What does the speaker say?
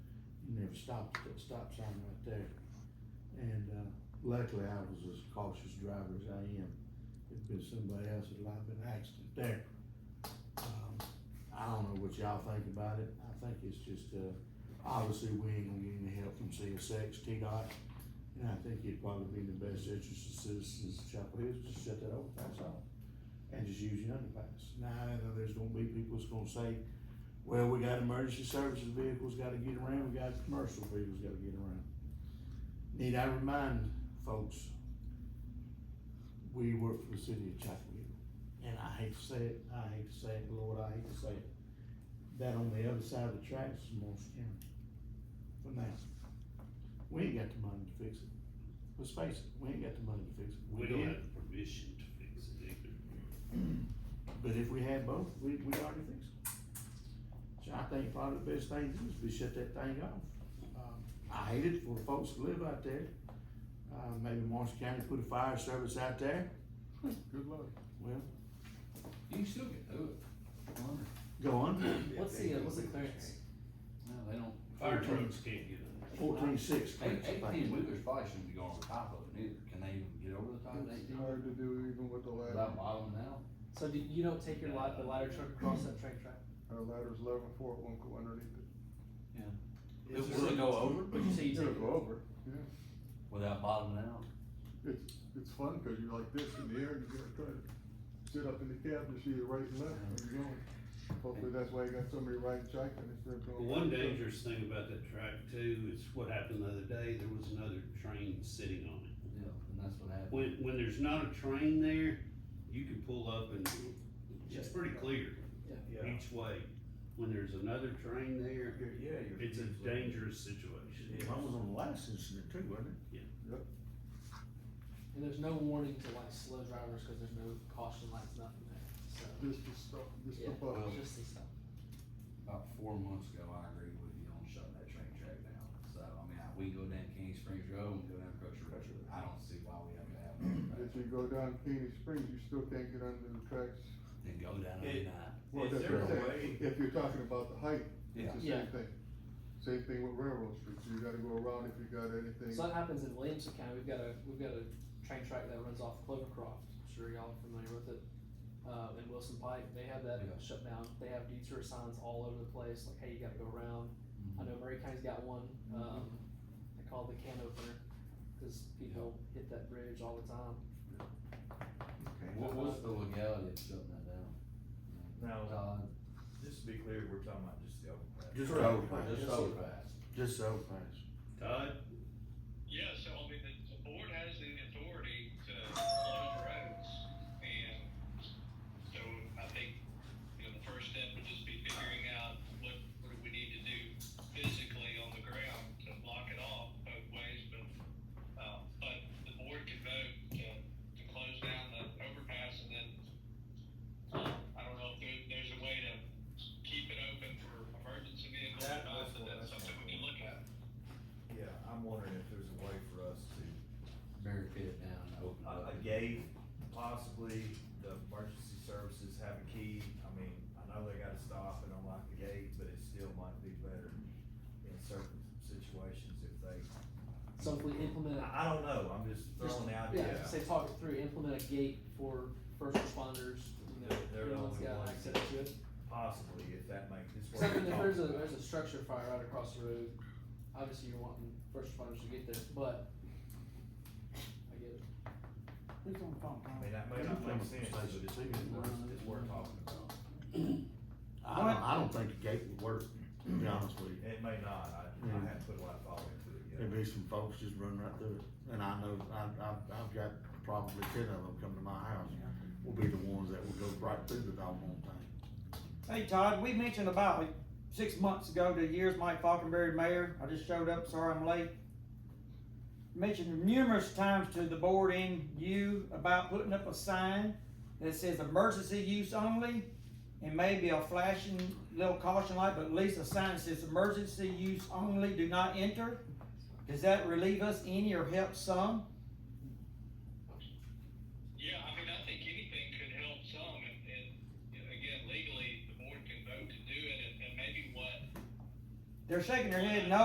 and there was stop, stop sign right there. And, uh, luckily I was as cautious driver as I am. If it was somebody else, it'd have been an accident there. Um, I don't know what y'all think about it. I think it's just, uh, obviously we ain't gonna get any help from CSX, T-Dot. And I think it'd probably be in the best interest of citizens of Chapel Hills to shut that overpass off and just use the underpass. Now, I know there's gonna be people that's gonna say, well, we got emergency services vehicles gotta get around, we got commercial vehicles gotta get around. Need I remind folks, we work for the city of Chapel Hill, and I hate to say it, I hate to say it, Lord, I hate to say it. That on the other side of the tracks is Morris County, for now. We ain't got the money to fix it, let's face it, we ain't got the money to fix it. We don't did. have the permission to fix it either. But if we had both, we, we'd already fix it. So I think probably the best thing to do is we shut that thing off. Um, I hate it for the folks that live out there. Uh, maybe Marshall County put a fire service out there. Good luck. Well, You can still get through it. Wonder. go on. What's the, uh, what's the clearance? No, they don't. Fire trucks can't get Fourteen six. Eight- Eighteen wheelers probably shouldn't be going on top of it either. Can they even get over the top of It's eighteen? hard to do even with the ladder. Without bottoming out? So do, you don't take your li- the ladder truck across that train track? Our ladder's eleven four, it won't go underneath it. It will go over But you say you take It'll it? go over. without bottoming out. It's, it's fun, cause you're like this in the air, and you gotta try to sit up in the cab to see the right and left where you're going. Hopefully that's why you got somebody riding shotgun instead of Well, One going. dangerous thing about that track too is what happened the other day, there was another train sitting on it. Yeah, and that's what happened. When, when there's not a train there, you can pull up and it's pretty clear each way. When there's another train there, Yeah, you're. it's a dangerous situation. I was on the last incident too, wasn't it? And there's no warning to like slow drivers, cause there's no caution lights, nothing there, Just to stop, just Yeah. to so. bust. it's Just these stuff. About four months ago, I agreed with you on shutting that train track down. So, I mean, I- we can go down King Springs Road and go down Crusher Road. I don't see why we have to have another If track. you go down Caney Springs, you still can't get under the tracks. Then go down at Yeah. night. Well, Is that's there what a I'm saying. way- If you're talking about the height, Yeah. it's the Yeah. same thing. Same thing with railroad streets, you gotta go around if you got anything. So that happens in Williamson County, we've got a, we've got a train track that runs off Clovercroft, I'm sure y'all are familiar with it. Uh, in Wilson Pike, they have that Yeah. shut down, they have detour signs all over the place, like, hey, you gotta go around. I Mm-hmm. know Murray County's got one, um, they call it the can opener, cause people hit that bridge all the time. What was the legality of shutting that down? Now- Todd? Just to be clear, we're talking about just the overpass. Just the overpass, Just overpass. just the overpass. Todd, Yeah, so I mean, the, the board has the authority to close roads, and so I think, you know, the first step would just be figuring out what, what do we need to do physically on the ground to block it off both ways, but, um, but the board can vote to, to close down the overpass, and then, um, I don't know if there, there's a way to keep it open for emergency vehicles or That- that's not, what- but that's that's something what- we can look at. Yeah, I'm wondering if there's a way for us to, barricade it down and open it a, up. a gate, possibly, the emergency services have a key. I mean, I know they gotta stop and unlock the gate, but it still might be better in certain situations if they, So if we implement a I, I don't know, I'm just throwing out. Yeah, say talk it through, implement a gate for first responders, you know, They're the everyone's only got ones access that- to it. Possibly, if that makes, it's Except worth if there's a, talking about. there's a structure fire right across the road, obviously you're wanting first responders to get there, but I get it. I mean, that may not make sense, but it's, it's worth, it's worth talking about. I don't, I don't think the gate would work, to be honest with you. It may not, I, I haven't put a lot of thought into it yet. There'd be some folks just run right through it, and I know, I, I've, I've got probably ten of them come to my house, will be the ones that will go right through the doggone thing. Hey Todd, we mentioned about like, six months ago to years Mike Falconberry mayor. I just showed up, sorry I'm late. Mentioned numerous times to the board and you about putting up a sign that says emergency use only and maybe a flashing little caution light, but at least a sign that says emergency use only, do not enter. Does that relieve us any or help some? Yeah, I mean, I think anything could help some, and, and you know, again, legally, the board can vote to do it, and, and maybe what They're shaking their head no